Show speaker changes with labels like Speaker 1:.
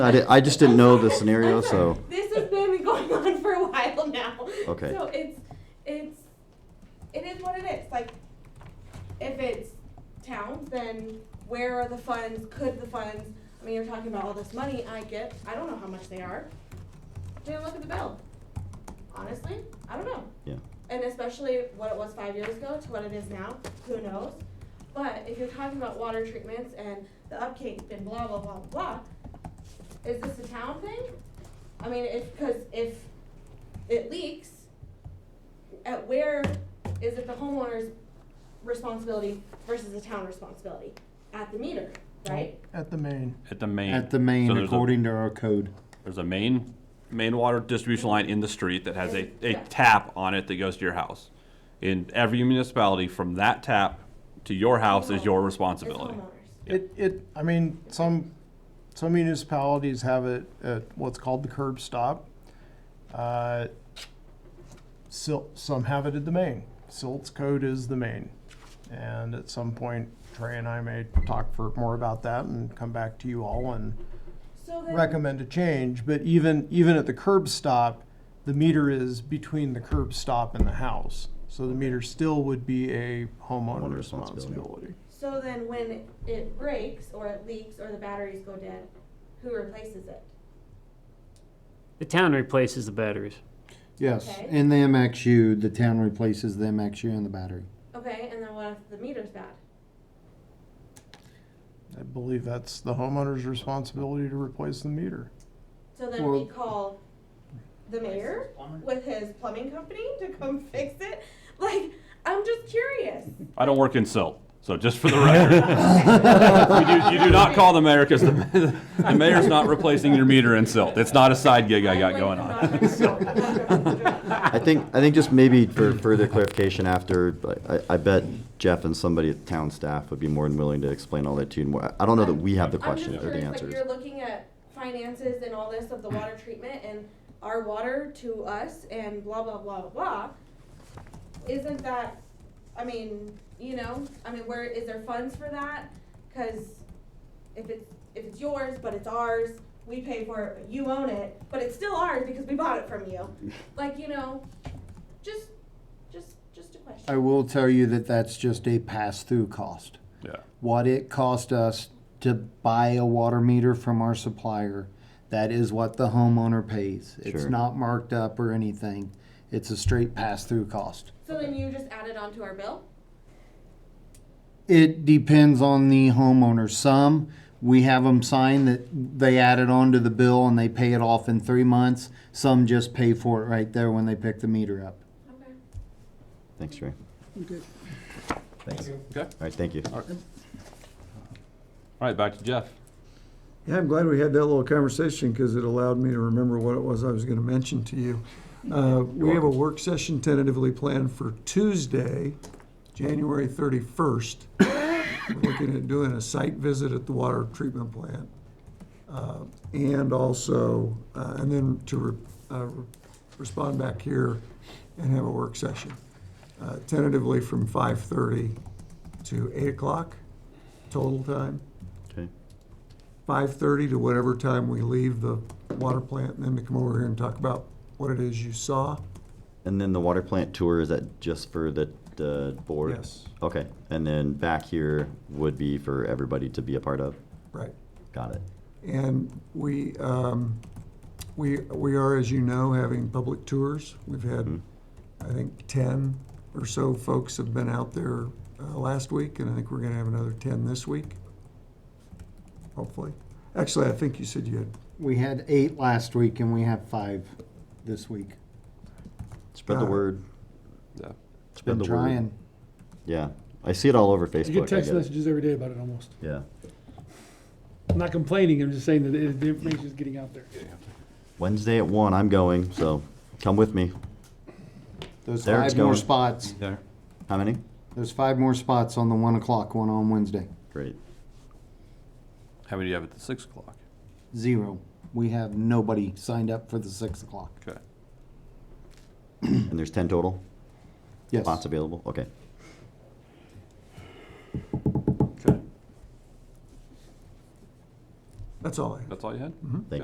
Speaker 1: I, di- I just didn't know the scenario,
Speaker 2: I'm sorry.
Speaker 1: so
Speaker 2: This has been going on for a while now.
Speaker 1: Okay.
Speaker 2: So it's, it's, it is what it is, like, if it's towns, then where are the funds, could the funds, I mean, you're talking about all this money I get, I don't know how much they are. Didn't look at the bill. Honestly, I don't know.
Speaker 1: yeah.
Speaker 2: And especially what it was five years ago to what it is now, who knows? But if you're talking about water treatments and the upkeep and blah, blah, blah, blah, is this a town thing? I mean, if, cause if it leaks, at where is it the homeowner's responsibility versus the town responsibility? At the meter, right?
Speaker 3: At the main.
Speaker 4: At the main.
Speaker 5: At the main,
Speaker 4: So there's a-
Speaker 5: according to our code.
Speaker 4: There's a main, main water distribution line in the street that has a, a tap on it that goes to your house. In every municipality, from that tap to your house is your
Speaker 2: It's
Speaker 4: responsibility.
Speaker 2: homeowners.
Speaker 3: It, it, I mean, some, some municipalities have it at what's called the curb stop. Uh, Sil some have it at the main. Silt's code is the main. And at some point, Trey and I may talk for more about that and come back to you all and
Speaker 2: So then.
Speaker 3: recommend a change. But even, even at the curb stop, the meter is between the curb stop and the house. So the meter still would be a homeowner
Speaker 1: Homeowner responsibility.
Speaker 3: responsibility.
Speaker 2: So then when it breaks or it leaks or the batteries go dead, who replaces it?
Speaker 6: The town replaces the batteries.
Speaker 5: Yes,
Speaker 2: Okay.
Speaker 5: in the MXU, the town replaces the MXU and the battery.
Speaker 2: Okay, and then what if the meter's bad?
Speaker 3: I believe that's the homeowner's responsibility to replace the meter.
Speaker 2: So then we
Speaker 5: Well-
Speaker 2: call the mayor with his plumbing company to come fix it? Like, I'm just curious.
Speaker 4: I don't work in silt, so just for the record. You do, you do not call the mayor because the, the mayor's not replacing your meter in silt. It's not a side gig I got going on.
Speaker 1: I think I think just maybe for further clarification after, like, I, I bet Jeff and somebody at town staff would be more than willing to explain all that to you. More. I- I don't know that we have the
Speaker 2: I'm just
Speaker 1: questions or the
Speaker 2: curious, like,
Speaker 1: answers.
Speaker 2: you're looking at finances and all this of the water treatment and our water to us and blah, blah, blah, blah. Isn't that, I mean, you know, I mean, where, is there funds for that? Cause if it's, if it's yours, but it's ours, we pay for it, but you own it, but it's still ours because we bought it from you. Like, you know, just, just, just a question.
Speaker 5: I will tell you that that's just a pass-through cost.
Speaker 4: Yeah.
Speaker 5: What it cost us to buy a water meter from our supplier, that is what the homeowner pays. It's
Speaker 1: Sure.
Speaker 5: not marked up or anything. It's a straight pass-through cost.
Speaker 2: So then you just add it onto our bill?
Speaker 5: It depends on the homeowner. Some, we have them sign that they add it onto the bill and they pay it off in three months. Some just pay for it right there when they pick the meter up.
Speaker 2: Okay.
Speaker 1: Thanks, Ray. Thanks. All
Speaker 4: Okay. All
Speaker 1: right, thank you.
Speaker 4: right, back to Jeff.
Speaker 7: Yeah, I'm glad we had that little conversation because it allowed me to remember what it was I was going to mention to you. Uh, We have a work session tentatively planned for Tuesday, January 31st. We're Looking at doing a site visit at the water treatment plant. Uh, And also, uh, and then to re- uh, re- respond back here and have a work session. Uh, Tentatively from 5:30 to 8 o'clock total time
Speaker 1: Okay.
Speaker 7: five thirty to whatever time we leave the water plant, and then to come over here and talk about what it is you saw.
Speaker 1: And then the water plant tour is that just for the the board?
Speaker 7: Yes.
Speaker 1: Okay. And then back here would be for everybody to be a part of.
Speaker 7: Right.
Speaker 1: Got it.
Speaker 7: And we, um, we, we are, as you know, having public tours. We've had, I think, ten or so folks have been out there, uh, last week, and I think we're gonna have another ten this week. Hopefully. Actually, I think you said you had,
Speaker 5: We had eight last week and we have five this week.
Speaker 1: Spread
Speaker 7: Got
Speaker 1: the
Speaker 7: it.
Speaker 1: word.
Speaker 4: Yeah.
Speaker 1: Spread
Speaker 5: Been
Speaker 1: the word.
Speaker 5: trying.
Speaker 1: Yeah. I see it all over Facebook.
Speaker 8: I get
Speaker 1: I
Speaker 8: text
Speaker 1: get it.
Speaker 8: messages every day about it almost.
Speaker 1: Yeah.
Speaker 8: I'm not complaining, I'm just saying that it- the information is getting out there.
Speaker 1: Wednesday at one, I'm going, so come with me.
Speaker 5: There's
Speaker 1: There it's
Speaker 5: five more
Speaker 1: going.
Speaker 5: spots.
Speaker 4: There.
Speaker 1: How many?
Speaker 5: There's five more spots on the one o'clock one on Wednesday.
Speaker 1: Great.
Speaker 4: How many do you have at the six o'clock?
Speaker 5: Zero. We have nobody signed up for the six o'clock.
Speaker 4: Okay.
Speaker 1: And there's ten total
Speaker 5: Yes.
Speaker 1: spots available? Okay.
Speaker 4: Okay.
Speaker 9: That's all I have.
Speaker 7: That's all you had?
Speaker 4: Thank you.